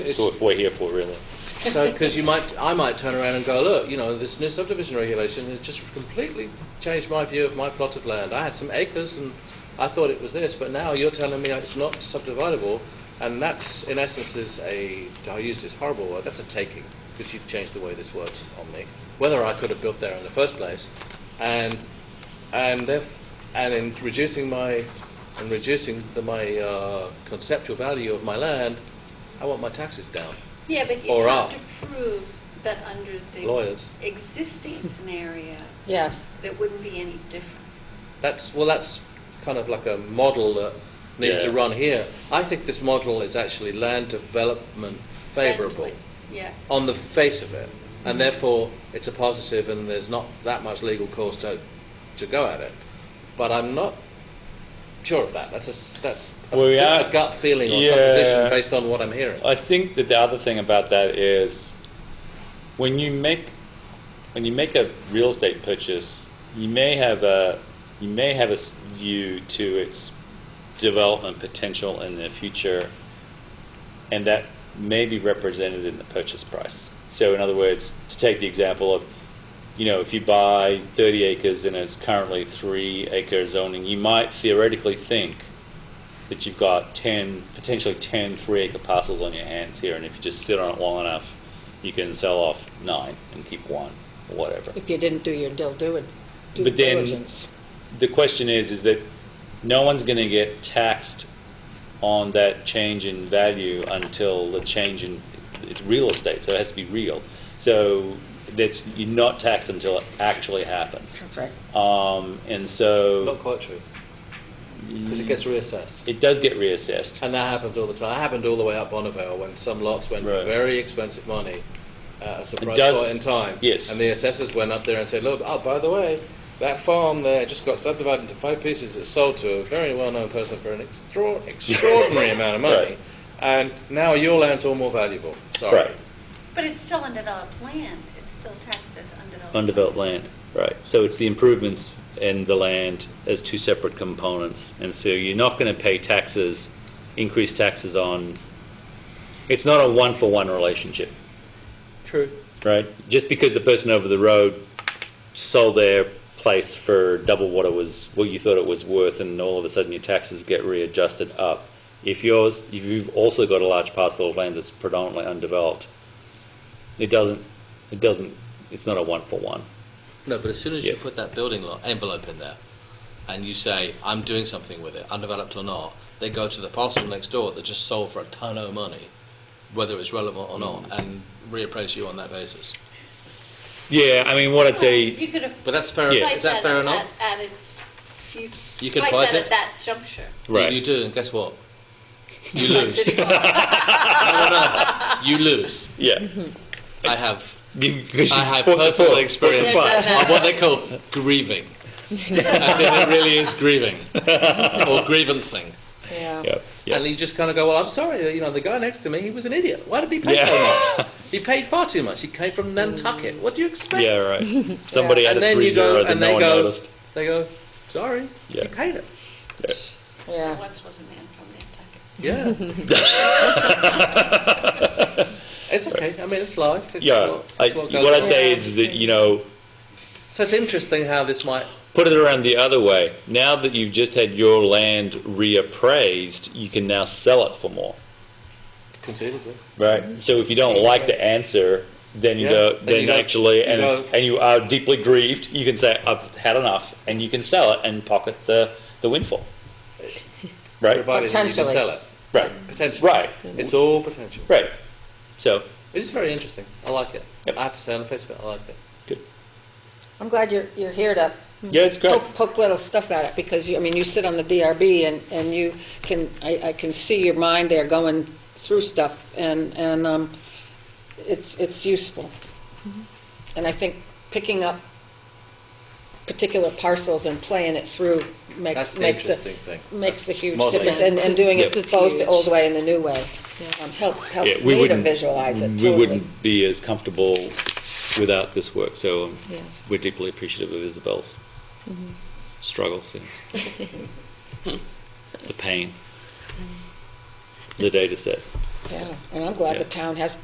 It's, So what we're here for, really. so because you might, I might turn around and go, look, you know, this new subdivision regulation has just completely changed my view of my plot of land. I had some acres and I thought it was this, but now you're telling me it's not subdividable, and that's in essence is a, I use this horrible word, that's a taking, because you've changed the way this works on me. Whether I could have built there in the first place, and and if, and in reducing my and reducing the, my uh, conceptual value of my land, I want my taxes down. Yeah, but you Or have up. to prove that under the Lawyers. existing scenario, Yes. it wouldn't be any different. That's well, that's kind of like a model that needs to Yeah. run here. I think this model is actually land development favourable Mentally. Yeah. on the face of it, and therefore it's a positive, and there's not that much legal cause to to go at it. But I'm not sure of that. That's a s- that's a, Well, we fe- are- a gut feeling or Yeah. Uh, supposition based on what I'm hearing. I think that the other thing about that is when you make when you make a real estate purchase, you may have a you may have a s- view to its development potential in the future, and that may be represented in the purchase price. So, in other words, to take the example of you know, if you buy 30 acres and it's currently three acre zoning, you might theoretically think that you've got 10, potentially 10 three acre parcels on your hands here, and if you just sit on it long enough, you can sell off nine and keep one, or whatever. If you didn't do your dil- due due But then- diligence. The question is, is that no one's going to get taxed on that change in value until the change in it's real estate, so it has to be real. So that you're not taxed until it actually happens. That's right. Um, and Not so quite true because it gets reassessed. it does get reassessed. And that happens all the time. It happened all the way up Bonneville when some lots went for Right. very expensive money at a surprise does- point in time. yes. And the assessors went up there and said, look, oh, by the way, that farm there just got subdivided into five pieces. It's sold to a very well-known person for an extra- extraordinary amount of money. Right. And now your land's all more valuable. Sorry. Right. But it's still undeveloped land. It's still taxed as undeveloped. Undeveloped land, right. So it's the improvements in the land as two separate components. And so you're not going to pay taxes, increase taxes on, it's not a one-for-one relationship, True. right? Just because the person over the road sold their place for double what it was, what you thought it was worth, and all of a sudden your taxes get readjusted up. If yours, if you've also got a large parcel of land that's predominantly undeveloped, it doesn't, it doesn't, it's not a one-for-one. No, but as soon as you Yeah. put that building lot envelope in there, and you say I'm doing something with it, undeveloped or not, they go to the parcel next door that just sold for a ton of money, whether it's relevant or not, Mm. and reappraise you on that basis. Yeah, I mean, what I'd say, You could have. But that's fair. Yeah. Is that fair enough? At, at its, you, You could fight fight that it. at that juncture. right? You, you do, and guess what? You lose. no, no, no. You lose. yeah, I have. because I have personal experience There's of what they call grieving. As in, it really is grieving or grievancing. Yeah. Yeah, And yeah, you just kind of go, well, I'm sorry, you know, the guy next to me, he was an idiot. Why did he pay Yeah. so much? He paid far too much. He came from Nantucket. What do you expect? yeah, right. Somebody had and a then three you go zeros and and they no one go noticed. they go sorry Yeah. you paid it Yeah. Yeah. Once was a man from Nantucket. yeah it's okay i mean it's life it's Yeah, what, I, it's what goes what I'd on. say is that you know, so it's interesting how this might put it around the other way. Now that you've just had your land reappraised, you can now sell it for more, conceivably right? So if you don't like the answer, then you Yeah, go, then then you go- actually, you and go- and you are deeply grieved, you can say, "I've had enough," and you can sell it and pocket the the windfall, right? provided that you can Potentially. sell it Right, potentially Right. it's all potential right. So this is very interesting i like it Yep. i have to say on the face of it i like it good. I'm glad you're, you're here to Yeah, it's great. poke, poke little stuff at it because you, I mean, you sit on the DRB and, and you can, I, I can see your mind there going through stuff and, and, um, it's, it's useful. And I think picking up particular parcels and playing it through that's makes, the makes interesting it, thing makes a huge Modeling. difference and, and doing it This both was the huge. old way and the new way. Um, help, helps Yeah, we me to wouldn't visualize it We totally. wouldn't be as comfortable without this work, so um, Yeah. we're deeply appreciative of Isabel's struggles and the pain, the data set. yeah. And I'm glad the town has